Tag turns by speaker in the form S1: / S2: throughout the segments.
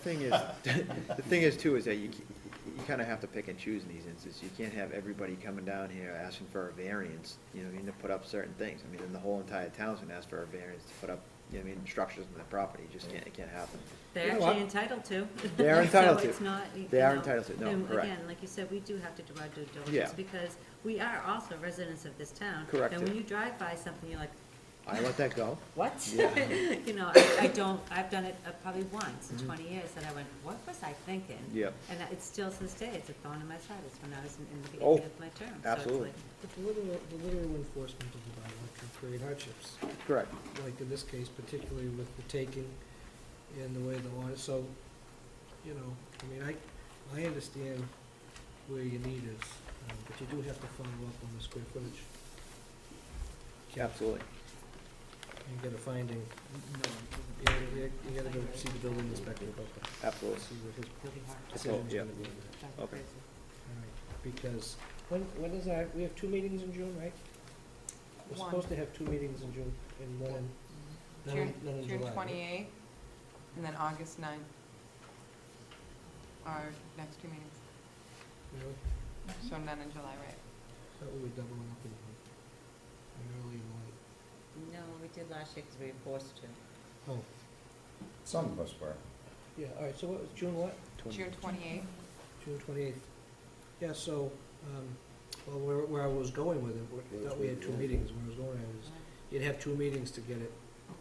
S1: Thing is, the thing is too, is that you, you kind of have to pick and choose in these instances. You can't have everybody coming down here asking for a variance, you know, what I mean, to put up certain things. I mean, then the whole entire town's gonna ask for a variance to put up, you know, what I mean, structures on their property. It Just can't, it can't happen.
S2: They're
S1: You know what?
S2: actually entitled to.
S1: They are entitled
S2: So
S1: to.
S2: it's not. you
S1: They are
S2: know,
S1: entitled to. No, correct.
S2: And again, like you said, we do have to do our due
S1: Yeah.
S2: diligence because we are also residents of this town.
S1: Correct.
S2: And when you drive by something, you're like,
S1: I let that go.
S2: what?
S1: Yeah.
S2: You know, I, I don't, I've done it uh, probably once in twenty years and I went, what was I thinking?
S1: Mm-hmm. Yep.
S2: And that- it's still to this day, it's a thorn in my side. It's when I was in in the
S1: Oh,
S2: beginning of my term. So it's
S1: absolutely.
S2: like,
S3: But the literal, the literal enforcement of the bylaw can create hardships,
S1: Correct.
S3: like in this case, particularly with the taking and the way the law is, so, you know, I mean, I, I understand where your need is, uh, but you do have to follow up on the square footage.
S1: Absolutely.
S3: You get a finding, you gotta, you gotta go see the building inspector about that,
S1: Absolutely.
S3: see what his
S2: it'll be hard.
S3: decision's
S1: Oh, yeah.
S3: gonna be on that.
S2: It's
S1: Okay.
S2: crazy.
S3: All right, because, when, when is our, we have two meetings in June, right? We're
S4: One.
S3: supposed to have two meetings in June and one in, none
S4: June,
S3: in- none in
S4: June
S3: July, right?
S4: twenty-eighth, and then August ninth. Our next two meetings,
S3: Really?
S4: so none in July, right?
S3: Thought we were doubling up in June, and early and late.
S2: No, we did last year because we were forced to.
S3: Oh,
S5: Some of us were.
S3: yeah, all right, so what was, June what?
S4: June twenty-eighth,
S3: June twenty-eighth. Yeah, so, um, well, where, where I was going with it, where- I thought we had two meetings, where I was going, I was, you'd have two meetings to get it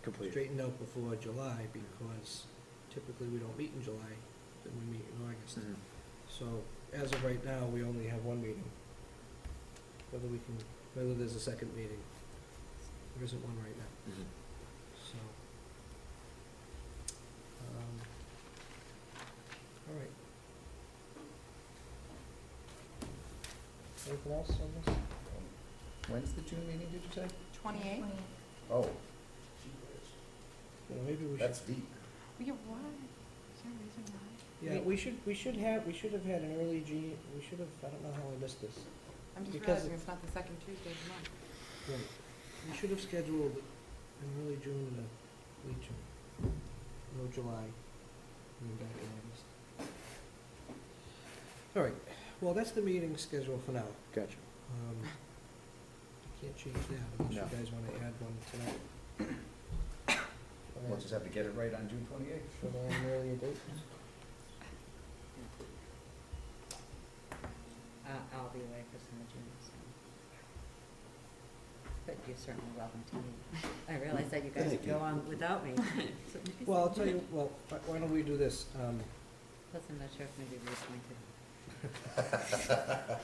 S1: Completely.
S3: straightened out before July, because typically we don't meet in July, then we meet in August.
S1: Mhm.
S3: So as of right now, we only have one meeting. Whether we can, whether there's a second meeting, there isn't one right now,
S1: Mhm.
S3: so. um, All right. Anything else on this?
S5: When's the June meeting, did you say?
S4: twenty-eighth?
S5: Oh,
S3: You know, maybe we should,
S5: that's deep.
S4: We get one, is there a reason why?
S3: yeah, we should, we should have, we should have had an early G, we should have, I don't know how we missed this.
S4: I'm just
S3: Because
S4: realizing
S3: it-
S4: it's not the second Tuesday of the month.
S3: Right. We should have scheduled in early June and a late June, no July, and then back in August. All right, well, that's the meeting schedule for now.
S1: Gotcha.
S3: Um, Can't change that unless you
S1: No.
S3: guys want to add one tonight.
S5: We'll just have to get it right on June twenty-eighth.
S3: Should I an earlier date?
S2: Uh, I'll be away for some of June, so. But you're certainly welcome to me. I realize that you guys
S5: Thank
S2: would go
S5: you.
S2: on without me. So maybe
S3: Well, I'll
S2: some-
S3: tell you, well, why- why don't we do this? Um,
S2: Plus, I'm not sure if maybe Ruth might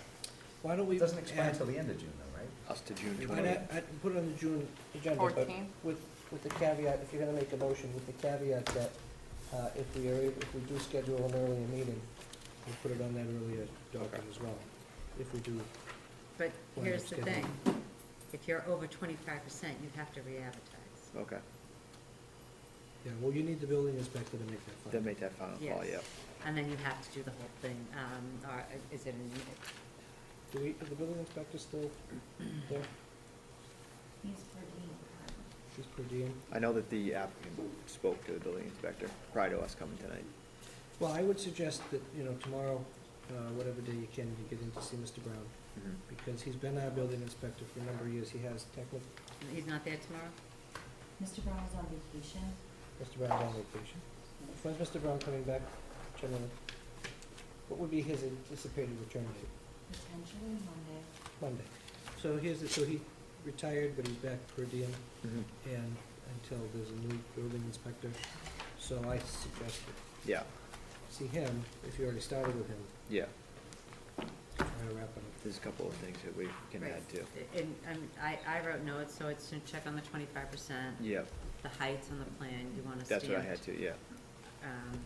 S3: Why don't we?
S5: It doesn't expire
S3: add-
S5: until the end of June though, right?
S1: Us to June
S3: I'd
S1: twenty.
S3: add- I'd put it on the June agenda, but
S4: 14th.
S3: With, with the caveat, if you're gonna make a motion, with the caveat that, uh, if we are, able- if we do schedule an earlier meeting, we'll put it on that earlier document as well, if we do.
S2: But
S3: Well,
S2: here's the
S3: it's
S2: thing,
S3: getting-
S2: if you're over twenty-five percent, you have to re-advertise.
S1: Okay.
S3: Yeah, well, you need the building inspector to make that
S1: Then
S3: final.
S1: make that final call,
S2: Yes.
S1: yep.
S2: And then you have to do the whole thing, um, or is it, an-
S3: Do we, is the building inspector still there? He's per diem.
S1: I know that the applicant spoke to the building inspector prior to us coming tonight.
S3: Well, I would suggest that, you know, tomorrow, uh, whatever day you can, you get in to see Mr. Brown,
S1: Mhm.
S3: because he's been our building inspector for a number of years, he has technical,
S2: he's not there tomorrow?
S6: Mr. Brown is on vacation.
S3: Mr. Brown's on vacation. When's Mr. Brown coming back generally? What would be his anticipated return date?
S6: Potentially Monday.
S3: Monday. So here's, the- so he retired, but he's back per diem
S1: Mhm.
S3: and until there's a new building inspector. So I suggest that
S1: Yeah,
S3: see him, if you already started with him,
S1: yeah,
S3: try to wrap it
S1: there's a couple of things that we can
S2: Right.
S1: add too.
S2: And, and I, I wrote notes, so it's to check on the twenty-five percent,
S1: Yep,
S2: the heights on the plan, you wanna stamp.
S1: that's what I had too, yeah.
S2: um,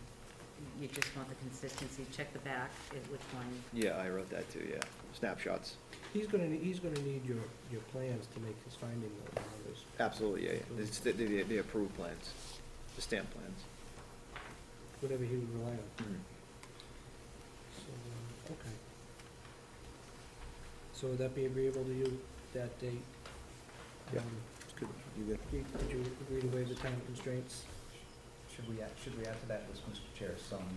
S2: you just want the consistency, check the back, at which one,
S1: Yeah, I wrote that too, yeah. Snapshots,
S3: up. He's gonna, ne- he's gonna need your, your plans to make his finding though, on this.
S1: absolutely, yeah, yeah. It's the, the, the approved plans, the stamp plans.
S3: whatever he would rely on.
S1: Mhm.
S3: So, um, okay. So would that be agreeable to you, that date?
S1: Yeah.
S3: Um,
S1: It's good. You good?
S3: Did did you agree to waive the time constraints?
S5: should we, add- should we add to that, was Mr. Chair, some